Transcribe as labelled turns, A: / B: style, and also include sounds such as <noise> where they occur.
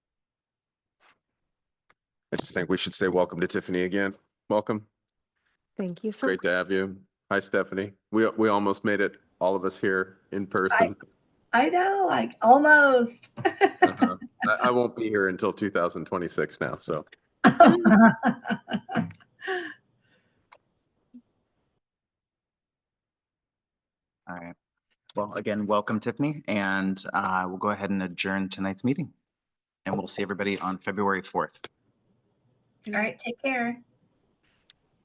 A: I just think we should say welcome to Tiffany again. Welcome.
B: Thank you
A: It's
B: so much.
A: great to have you. Hi, Stephanie. We, we almost made it, all of us here in person.
C: I know, like almost. <laughs>
A: Uh-huh. I, I won't be here until 2026 now, so.
D: All right. Well, again, welcome Tiffany, and uh, we'll go ahead and adjourn tonight's meeting. And we'll see everybody on February 4th.
C: All right, take care.